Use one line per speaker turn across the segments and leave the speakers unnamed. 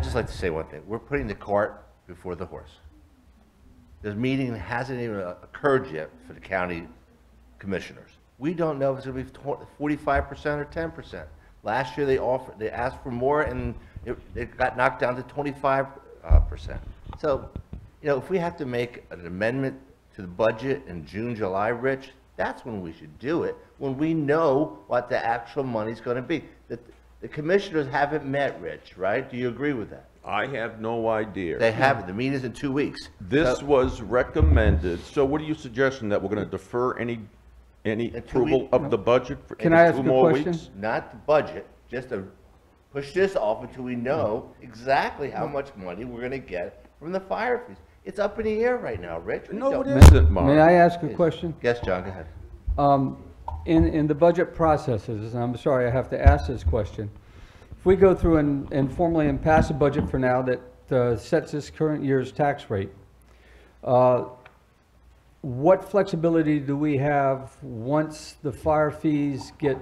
just like to say one thing. We're putting the cart before the horse. This meeting hasn't even occurred yet for the county commissioners. We don't know if it's going to be forty-five percent or ten percent. Last year, they offered, they asked for more, and it, it got knocked down to twenty-five uh, percent. So, you know, if we have to make an amendment to the budget in June, July, Rich, that's when we should do it, when we know what the actual money's going to be. The, the commissioners haven't met, Rich, right? Do you agree with that?
I have no idea.
They haven't. The meeting's in two weeks.
This was recommended, so what are you suggesting, that we're gonna defer any, any
two
approval
week-
of the budget for
Can I
any
ask
two
a
more
question?
weeks?
not the budget, just to push this off until we know exactly how much money we're gonna get from the fire fees. It's up in the air right now, Rich. We
No,
don't-
it isn't,
May I
Mark.
ask a question?
Yes, John, go ahead.
Um, In, in the budget processes, and I'm sorry, I have to ask this question. If we go through and and formally and pass a budget for now that uh, sets this current year's tax rate, uh, what flexibility do we have once the fire fees get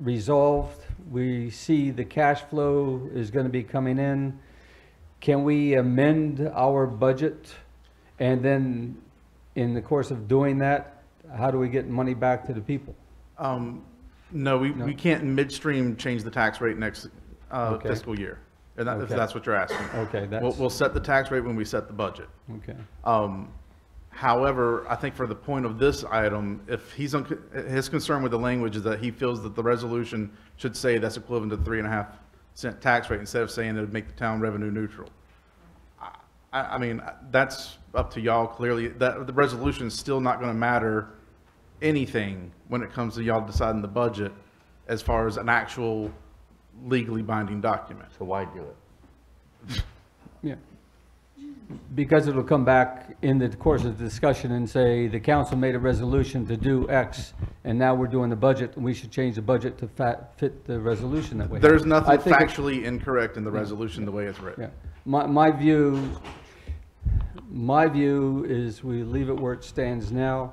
resolved? We see the cash flow is going to be coming in. Can we amend our budget? And then, in the course of doing that, how do we get money back to the people?
Um, no, we, we can't in midstream change the tax rate next uh,
Okay.
fiscal year. And that, if
Okay.
that's what you're asking.
Okay,
We'll,
that's,
we'll set the tax rate when we set the budget.
okay.
Um, however, I think for the point of this item, if he's, unc- his concern with the language is that he feels that the resolution should say that's equivalent to three and a half cent tax rate instead of saying it would make the town revenue neutral. I, I I mean, that's up to y'all clearly. That, the resolution is still not gonna matter anything when it comes to y'all deciding the budget as far as an actual legally binding document.
So why do it?
Yeah. Because it'll come back in the course of the discussion and say, the council made a resolution to do X, and now we're doing the budget, and we should change the budget to fa- fit the resolution that way.
There's
I
nothing
think it-
factually incorrect in the resolution the way it's written.
Yeah. My, my view, my view is we leave it where it stands now.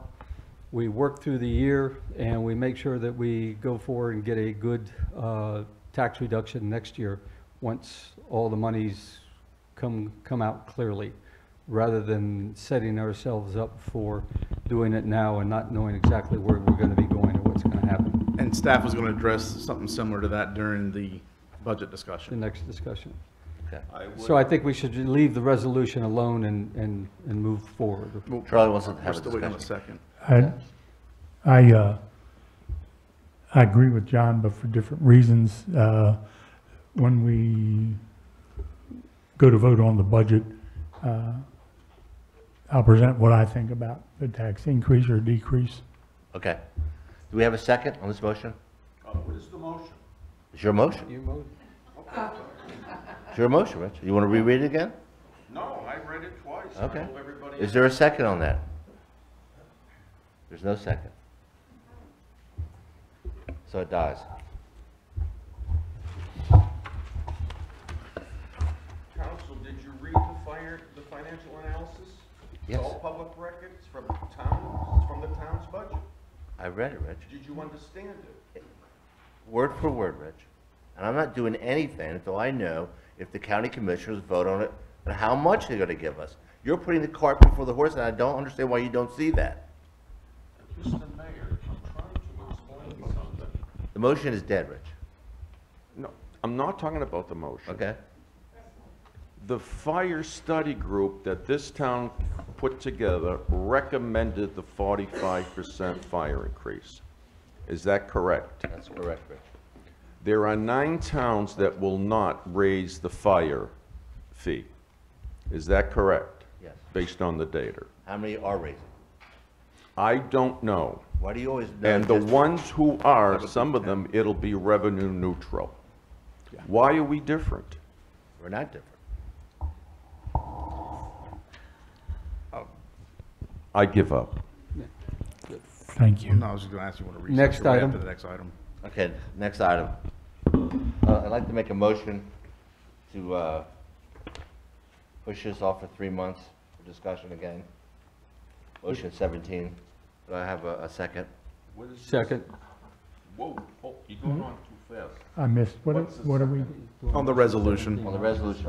We work through the year and we make sure that we go forward and get a good, uh, tax reduction next year once all the monies come, come out clearly, rather than setting ourselves up for doing it now and not knowing exactly where we're gonna be going or what's gonna happen
And staff was going to address something similar to that during the budget
the
discussion.
next discussion.
Okay.
I would-
So I think we should leave the resolution alone and, and, and move forward.
Charlie wants to
We're
have a
still waiting on a
discussion.
second.
I, I, uh, I agree with John, but for different reasons. Uh, When we go to vote on the budget, uh, I'll present what I think about the tax increase or decrease.
Okay. Do we have a second on this motion?
What is the motion?
It's your motion. It's your motion, Rich. You wanna reread it again?
No, I read it twice.
Okay. Is there a second on that? There's no second. So it dies.
Council, did you read the fire, the financial analysis?
It's
Yes.
all public records from the town, it's from the town's budget.
I read it, Rich.
Did you understand it?
word for word, Rich. And I'm not doing anything until I know if the county commissioners vote on it and how much they're gonna give us. You're putting the cart before the horse, and I don't understand why you don't see that.
Mr. Mayor, I'm trying to explain something.
The motion is dead, Rich,
No, I'm not talking about the motion.
okay?
The fire study group that this town put together recommended the forty-five percent fire increase. Is that correct?
That's correct, Rich.
There are nine towns that will not raise the fire fee. Is that correct?
Yes.
Based on the data?
How many are raising?
I don't know.
Why do you always know?
And the
just-
ones who are, some of them, it'll be revenue neutral. Why are we different?
We're not different.
I give up.
Thank you.
No, I was just going to ask you, want to recess?
Next
it right
item.
After the next item.
Okay, next item. Uh, I'd like to make a motion to, uh, push this off for three months for discussion again. Motion seventeen. Do I have a, a second?
Second.
Whoa, you're going on too fast.
I missed, what,
What's the
what are we?
On the resolution.
On the resolution,